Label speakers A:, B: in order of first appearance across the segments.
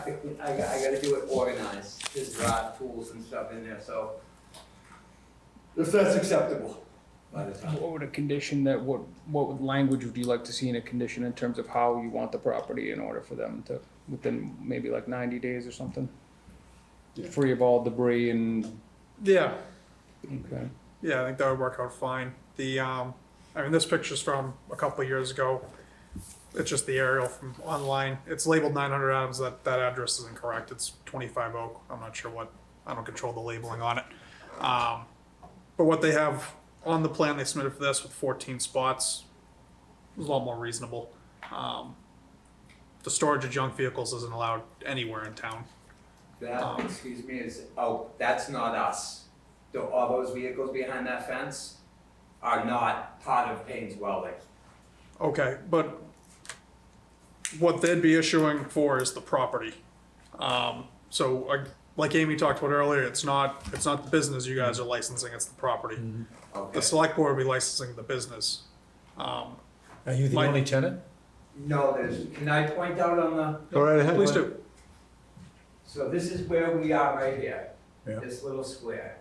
A: can, I, got- I gotta do it organized, because there are tools and stuff in there, so. If that's acceptable by the time.
B: What would a condition that, what, what would- language would you like to see in a condition in terms of how you want the property in order for them to, within maybe like ninety days or something?
C: Yeah.
B: Free of all debris and,
D: Yeah,
B: okay,
D: yeah, I think that would work out fine. The, um, I mean, this picture's from a couple of years ago. It's just the aerial from online. It's labeled nine hundred Adams, that, that address is incorrect. It's twenty-five Oak. I'm not sure what, I don't control the labeling on it. Um, but what they have on the plan they submitted for this with fourteen spots was a lot more reasonable. Um, the storage of junk vehicles isn't allowed anywhere in town.
A: That, excuse me, is, oh, that's not us. Though all those vehicles behind that fence are not part of Payne's Welding.
D: Okay, but what they'd be issuing for is the property. Um, so like, like Amy talked about earlier, it's not, it's not the business you guys are licensing, it's the property.
E: Mm.
A: Okay.
D: The select board will be licensing the business. Um,
E: Are you the
D: Mike.
E: only tenant?
A: No, there's, can I point out on the,
E: Go right ahead.
D: please do,
A: so this is where we are right here.
E: Yeah.
A: This little square.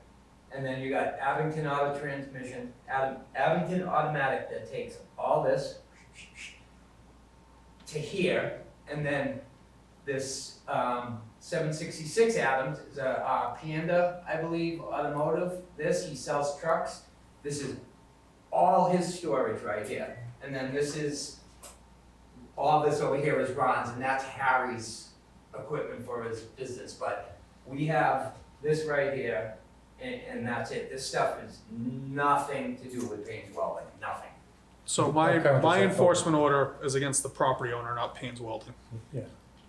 A: And then you got Abington Auto Transmission, Ab- Abington Automatic that takes all this to here, and then this, um, seven sixty-six Adams is a, uh, Panda, I believe, automotive. This, he sells trucks. This is all his storage right here. And then this is, all this over here is Ron's, and that's Harry's equipment for his business, but we have this right here, and, and that's it. This stuff is nothing to do with Payne's Welding, nothing.
D: so my,
E: Okay, I'll
D: my
E: just-
D: enforcement order is against the property owner, not Payne's Welding.
E: Yeah.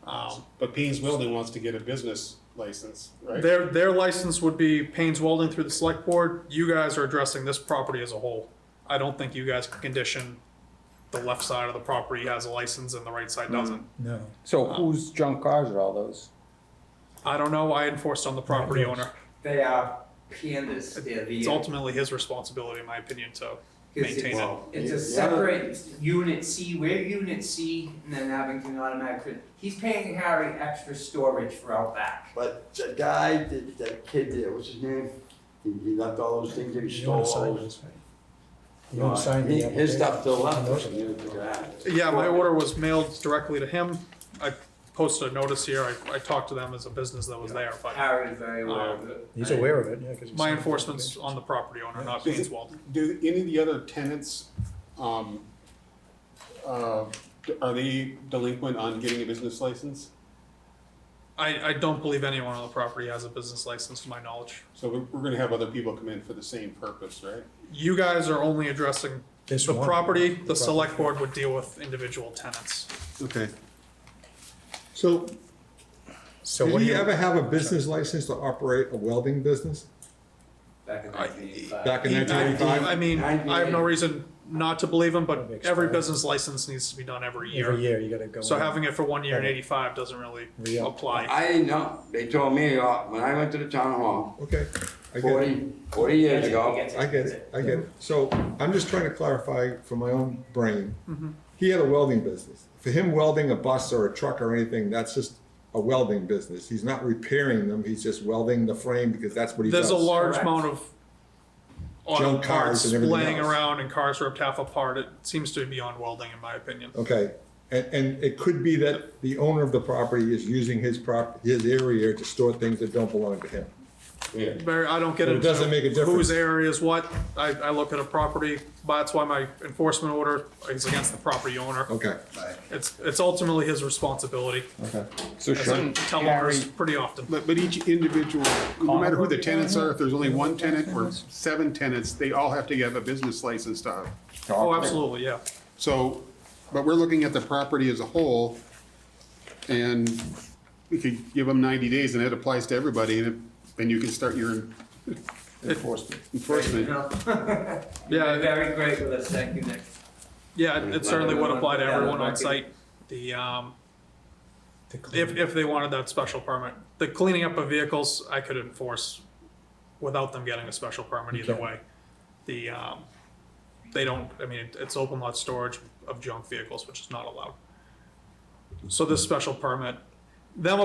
D: Um,
C: But Payne's Welding wants to get a business license, right?
D: their, their license would be Payne's Welding through the select board, you guys are addressing this property as a whole. I don't think you guys can condition the left side of the property has a license and the right side doesn't.
E: No.
B: so whose junk cars are all those?
D: I don't know. I enforced on the property
E: Right, yes.
D: owner.
A: They are pandas, they're the. uh,
D: It's ultimately his responsibility, in my opinion, to
A: Because
D: maintain it.
C: Well,
A: It's
C: yeah.
A: a separate unit C, we're unit C, and then Abington Automatic, Cre- he's paying Harry extra storage for out back.
F: But the guy, that, that kid there, what's his name? He, he left all those things that he
E: You don't sign
F: stole.
E: this, right? You don't sign the
F: He- His
E: application.
F: stuff still left, us, and he didn't figure it out.
D: Yeah, my order was mailed directly to him. I posted a notice here. I, I talked to them as a business that was there, but
A: Harry's very aware
D: Um,
A: of it.
E: He's aware of it, yeah, because.
D: my enforcement's on the property owner, not Payne's Welding.
C: Do any of the other tenants, um, uh, are they delinquent on getting a business license?
D: I, I don't believe anyone on the property has a business license, to my knowledge.
C: So we're, we're gonna have other people come in for the same purpose, right?
D: You guys are only addressing
E: This
D: the
E: one.
D: property. The select board would deal with individual tenants.
G: Okay. So,
E: So
G: did
E: what do
G: he
E: you,
G: ever have a business license to operate a welding business
A: Back in
D: I-
A: 1985.
G: back in
D: I-
G: nineteen
D: I
G: eighty-five?
D: mean, I have no reason not to believe him, but
E: That'd be
D: every
E: expired.
D: business license needs to be done every
E: every
D: year.
E: year you gotta go.
D: So
E: in.
D: having it for one year in
E: Right.
D: eighty-five doesn't really
E: Re-up.
D: apply.
F: I didn't know, they told me, uh, when I went to the town hall,
G: Okay, I get it,
F: forty, forty years ago,
G: I get it, I get it. So I'm just trying to clarify for my own brain.
D: Mm-hmm.
G: He had a welding business. For him, welding a bus or a truck or anything, that's just a welding business. He's not repairing them, he's just welding the frame because that's what he does.
D: There's a large
A: Correct.
D: amount of auto
G: Junk cars
D: parts
G: and everything
D: laying
G: else.
D: around and cars ripped half apart. It seems to be on welding, in my opinion.
G: Okay, and, and it could be that the owner of the property is using his prop, his area to store things that don't belong to him.
F: yeah.
D: Very, I don't get
G: But it
D: into
G: doesn't make a
D: whose
G: difference.
D: area is what. I, I look at a property, but that's why my enforcement order is against the property owner.
G: Okay,
D: It's, it's ultimately his responsibility,
G: okay.
B: So
D: as I
B: shouldn't
D: tell lawyers
B: Harry,
D: pretty often.
C: But, but each individual, no matter who the tenants are, if there's only one tenant or seven tenants, they all have to have a business license to have.
D: Oh, absolutely, yeah.
C: So, but we're looking at the property as a whole, and we could give them ninety days, and it applies to everybody, and then you can start your
G: Enforcement.
C: enforcement.
D: Yeah,
A: Very great with us, thank you, Nick.
D: Yeah, it- it certainly would apply to everyone on site. The, um,
E: To clean.
D: if, if they wanted that special permit. The cleaning up of vehicles, I could enforce without them getting a special permit either
E: Okay.
D: way. The, um, they don't, I mean, it- it's open lot storage of junk vehicles, which is not allowed. So this special permit, them